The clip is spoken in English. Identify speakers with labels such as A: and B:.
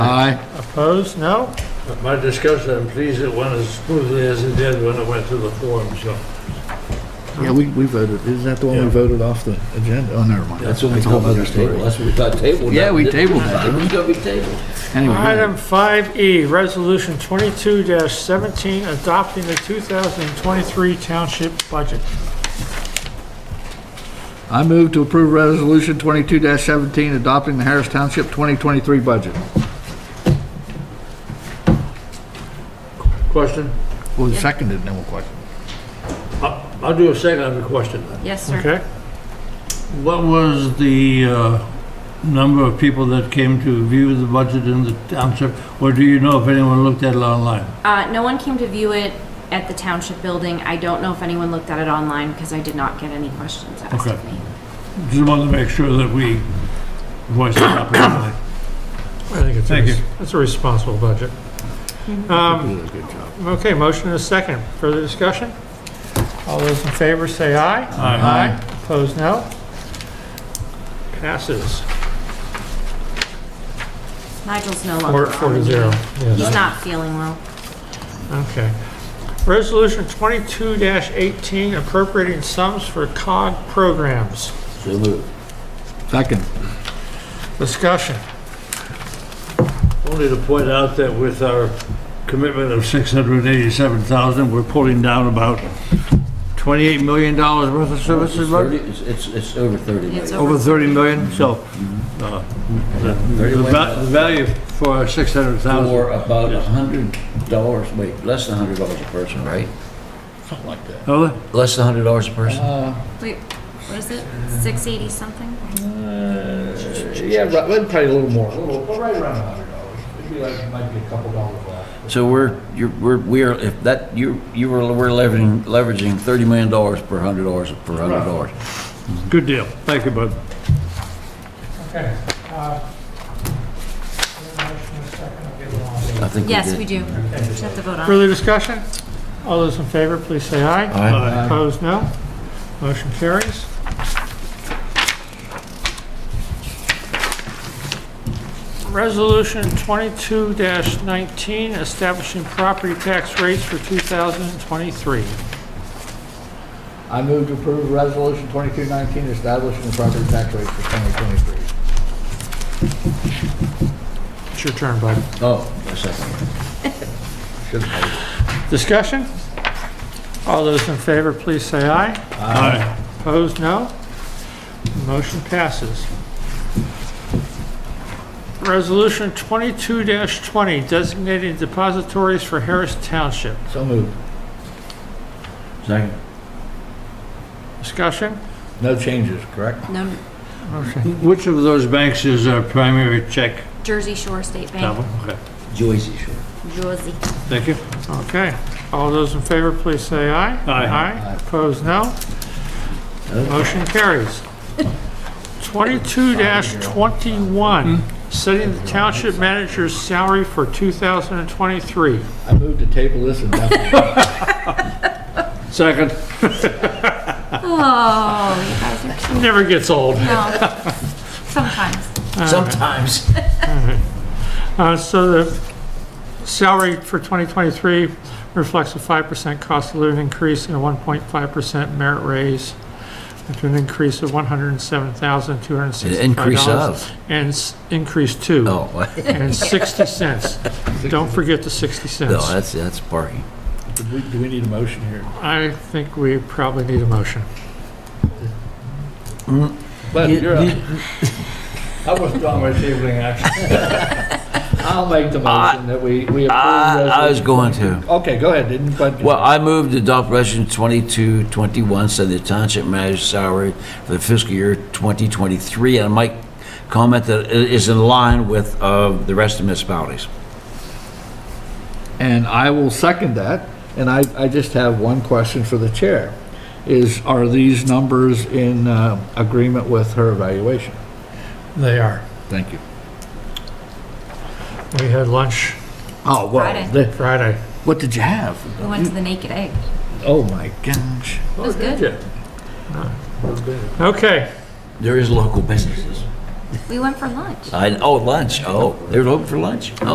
A: Opposed? No?
B: At My discussion, I'm pleased it went as smoothly as it did when it went to the forum, so.
C: Yeah, we, we voted, isn't that the one we
B: Yeah.
C: voted off the agenda? Oh, never mind.
D: That's what we
C: a whole
D: thought we
C: other
D: were
C: story.
D: tabled. That's what we thought tabled.
C: Yeah,
D: that.
C: we tabled that, didn't we?
D: It's gonna be tabled.
C: Anyway, go ahead.
D: um,
A: Item 5E, Resolution 22-17, adopting the 2023 township budget.
C: I move to approve Resolution 22-17 adopting the Harris Township 2023 budget.
B: Question?
C: Well, seconded, no question.
B: I- I'll do a second on the question then.
E: Yes, sir.
A: Okay?
B: What was the uh, number of people that came to view the budget in the township? Or do you know if anyone looked at it online?
E: Uh, no one came to view it at the township building. I don't know if anyone looked at it online because I did not get any questions asked
B: Okay.
E: of me.
B: Just wanted to make sure that we voiced it properly.
A: I think it's, a
B: Thank
A: res-
B: you.
A: it's a responsible budget. Um, Okay, motion and a second. Further discussion? All those in favor say aye.
B: Aye.
A: Opposed, no? Passes.
E: Nigel's no
A: Four,
E: longer on.
A: four to zero.
E: He's
A: Yes.
E: not feeling well.
A: Okay. Resolution 22-18, appropriating sums for COG programs.
D: So moved.
C: Second.
A: Discussion.
B: Only to point out that with our commitment of 687,000, we're pulling down about $28 million worth of services,
D: It's
B: right?
D: thirty- It's, it's, it's over thirty
E: It's
D: million.
B: over 30 million, so uh, the the va- the value for our 600,000,
D: For about a hundred dollars, wait, less than a hundred dollars a person, right?
C: Something like that.
B: Oh, the-
D: Less than a hundred dollars a person?
C: Uh,
E: Wait, what is it? 680 something?
C: Yeah, right, well, probably a little more.
F: Well, right around a hundred dollars. It'd be like, it might be a couple dollars off.
D: So we're, you're, we're, we are, if that, you, you were, we're leveraging, leveraging thirty million dollars per hundred dollars, per hundred dollars.
B: good deal. Thank you, bud.
A: Okay. uh, motion and a second. I'll give it all.
D: I think we
E: Yes,
D: did.
E: we do. You have to vote on it.
A: Further discussion? All those in favor, please say aye.
D: Aye.
A: Opposed, no. Motion carries. Resolution 22-19, establishing property tax rates for 2023.
C: I move to approve Resolution 2219 establishing the property tax rate for 2023.
A: It's your turn, bud.
D: Oh, a second.
A: Discussion? All those in favor, please say aye.
B: Aye.
A: Opposed, no. Motion passes. Resolution 22-20, designating depositories for Harris Township.
C: So moved.
D: Second.
A: Discussion?
C: No changes, correct?
E: No,
B: Which of those banks is our primary check?
E: Jersey Shore State
B: That
E: Bank,
B: one? Okay,
D: Joyce, sure.
E: Jersey.
B: thank you.
A: Okay. All those in favor, please say aye.
B: Aye.
A: Aye. Opposed, no. Motion carries. 22-21, setting the township manager's salary for 2023.
C: I move to table this and definitely.
B: Second,
E: Oh, you guys are cute.
A: Never gets old.
E: No, sometimes.
D: Sometimes.
A: Uh, So the salary for 2023 reflects a 5% cost of living increase and a 1.5% merit raise, with an increase of $107,265.
D: Increase of.
A: And s- increase two.
D: Oh,
A: And 60 cents. Don't forget the 60
D: no,
A: cents.
D: that's, that's parking.
C: Do we- Do we need a motion here?
A: I think we probably need a motion.
C: But
D: You-
C: you're up.
D: you-
C: I withdraw my tabling action. I'll make the motion that we, we approve
D: I, I was
C: resolution.
D: going to.
C: Okay, go ahead, didn't, but.
D: Well, I move to adopt Resolution 2221, so the township manager's salary for the fiscal year 2023, and I might comment that it is in line with uh, the rest of municipalities.
C: And I will second that, and I, I just have one question for the chair, is, are these numbers in uh, agreement with her evaluation?
A: They are.
C: Thank you.
A: We had lunch
C: Oh,
E: Friday.
C: well, the-
A: Friday.
C: what did you have?
E: We went to the Naked Egg.
C: Oh, my gosh.
E: It
A: Oh,
E: was good.
A: Okay,
D: There is local businesses.
E: We went for lunch.
D: I, oh, lunch, oh, they're open for lunch.